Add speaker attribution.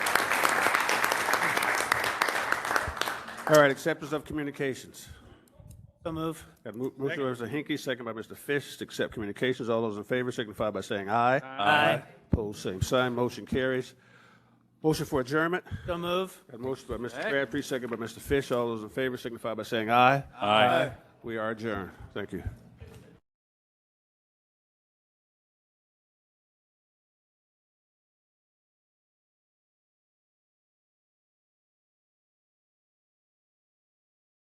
Speaker 1: All right, acceptance of communications.
Speaker 2: So move.
Speaker 1: Got mo- moved by Mr. Hinky, second by Mr. Fish, to accept communications. All those in favor signify by saying aye.
Speaker 2: Aye.
Speaker 1: Opposed, same sign, motion carries. Motion for adjournment.
Speaker 2: So move.
Speaker 1: Got motion by Mr. Crabtree, second by Mr. Fish. All those in favor signify by saying aye. Aye. We are adjourned. Thank you.